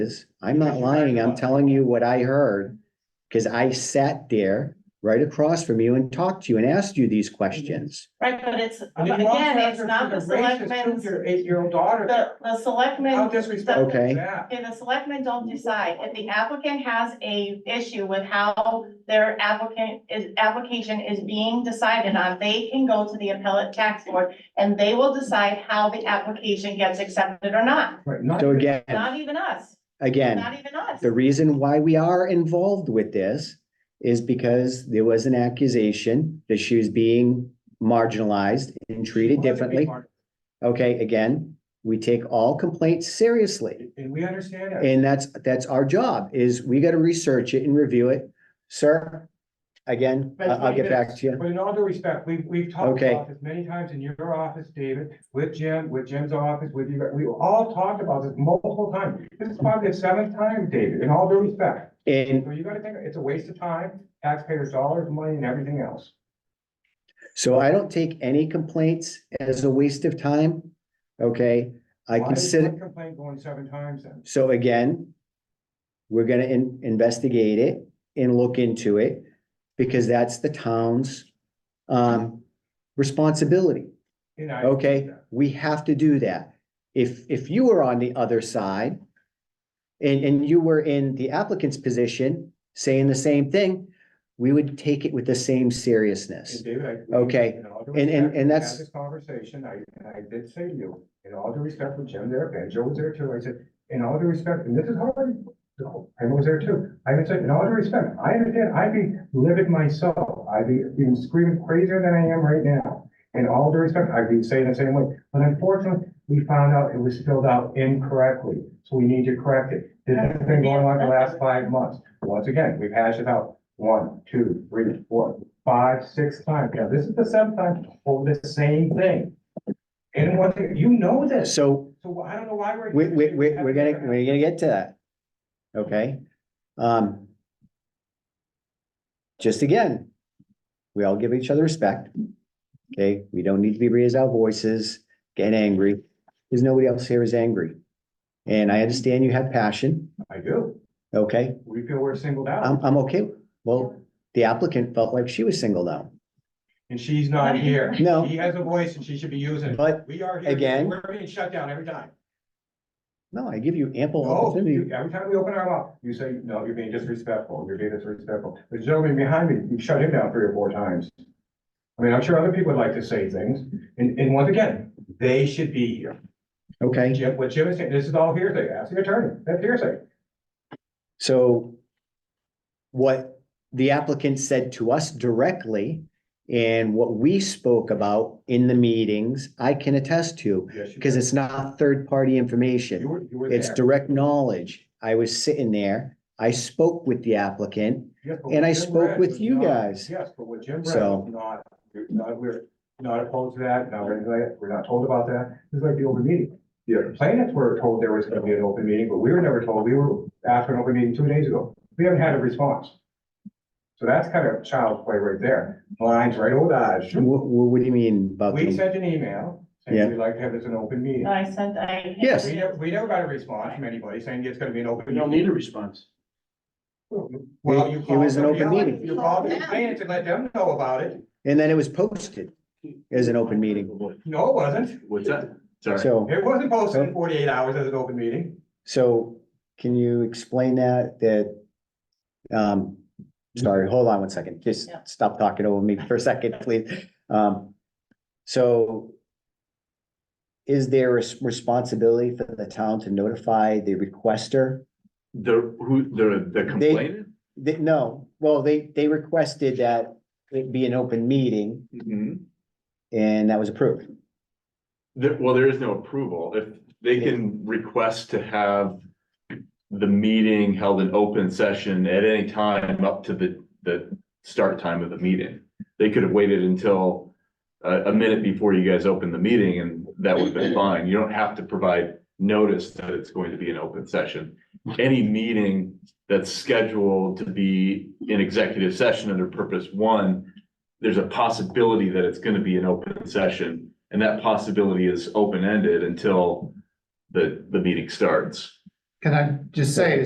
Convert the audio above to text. is. I'm not lying. I'm telling you what I heard. Cause I sat there right across from you and talked to you and asked you these questions. Right, but it's, I mean, but again, it's Rochester not the is racist selectmen's, to Your eight-year-old the, daughter, the how selectmen, disrespectful Okay. is that? okay, the selectmen don't decide. If the applicant has a issue with how their applicant, is, application is being decided on, they can go to the appellate tax board and they will decide how the application gets accepted or not. Right, not- So again, Not even us, again, not even us. the reason why we are involved with this is because there was an accusation that she was being marginalized and treated differently. Okay, again, we take all complaints seriously. And we understand that. And that's, that's our job is we gotta research it and review it. Sir, again, I- That's I'll what get it back is. to you. But in all due respect, we've, we've talked Okay. about this many times in your office, David, with Jim, with Jim's office, with you, we all talked about this multiple times. This is probably the seventh time, David, in all due respect. And So you gotta think, it's a waste of time, taxpayers' dollars, money, and everything else. so I don't take any complaints as a waste of time. Okay, I Why is one consider, Complaint going seven times then. so again, we're gonna in- investigate it and look into it because that's the town's um responsibility. And I- Okay, we have to do that. If, if you were on the other side and, and you were in the applicant's position, saying the same thing, we would take it with the same seriousness. And David, I. Okay. in all due And- and- respect, and we had that's- This conversation, I, and I did say to you, in all due respect for Jim there, and Joe was there too, I said, in all due respect, and this is hard. No, I was there too, I even said, in all due respect, I understand, I'd be livid myself, I'd be even screaming crazier than I am right now. In all due respect, I'd be saying the same way, but unfortunately, we found out it was filled out incorrectly, so we need to correct it. This has been going on the last five months, once again, we've hashed it out, one, two, three, four, five, six times. Now, this is the seventh time over the same thing. And one thing, you know this, So so I don't know why we're. we, we, we, we're gonna, we're gonna get to that. Okay? Um, just again, we all give each other respect. Okay, we don't need to be raise our voices, get angry, because nobody else here is angry. And I understand you have passion, I do. okay? We feel we're singled I'm, out I'm okay. Well, the applicant felt like she was singled out. and she's not here. No. He has a voice and she should be using it. um, But, We are here. Again. We're being shut down every time. no, I give you ample No, opportunity. you- every time we open our mouth, you say, no, you're being disrespectful, you're being disrespectful. The gentleman behind me, you shut him down three or four times. I mean, I'm sure other people would like to say things, and, and once again, they should be here. Okay, Jim, what Jim is saying, this is all hearsay, ask the attorney, that's hearsay. so what the applicant said to us directly and what we spoke about in the meetings, I can attest to because it's not third-party You information. were, you were It's there. direct knowledge. I was sitting there. I spoke with the applicant. Yes, but and I what Jim spoke read with was you not- guys. Yes, but what Jim read So- was not, you're not, we're not opposed to that, not, really glad- we're not told about that, it's like the open meeting. The plaintiffs were told there was gonna be an open meeting, but we were never told, we were asked for an open meeting two days ago, we haven't had a response. So that's kind of child's play right there, blinds right old eyes. Wha- wha- what do you mean about? We them? sent an email, Yeah. saying we'd like to have this an open meeting. I said, I. Yes. We never, we never got a response from anybody saying it's gonna be an open. We don't meeting. need a response. Well, It- you it called was an somebody open else. meeting. You called the plaintiffs and let them know about it. And then it was posted as an open meeting. No, it wasn't. What's that? Sorry. So. It wasn't posted in forty-eight hours as an open meeting. So can you explain that, that? Um, sorry, hold on one second. Just Yeah. stop talking over me for a second, please. Um, so. Is there a s- responsibility for the town to notify the requester? The, who, the, the complainant? They- no, well, they, they requested that it be an open meeting Mhm. and that was approved. There, well, there is no approval. If they can request to have the meeting held in open session at any time up to the, the start time of the meeting. They could have waited until a, a minute before you guys opened the meeting and that would have been fine. You don't have to provide notice that it's going to be an open session. Any meeting that's scheduled to be in executive session under purpose one, there's a possibility that it's gonna be an open session, and that possibility is open-ended until the, the meeting starts. Can I just say,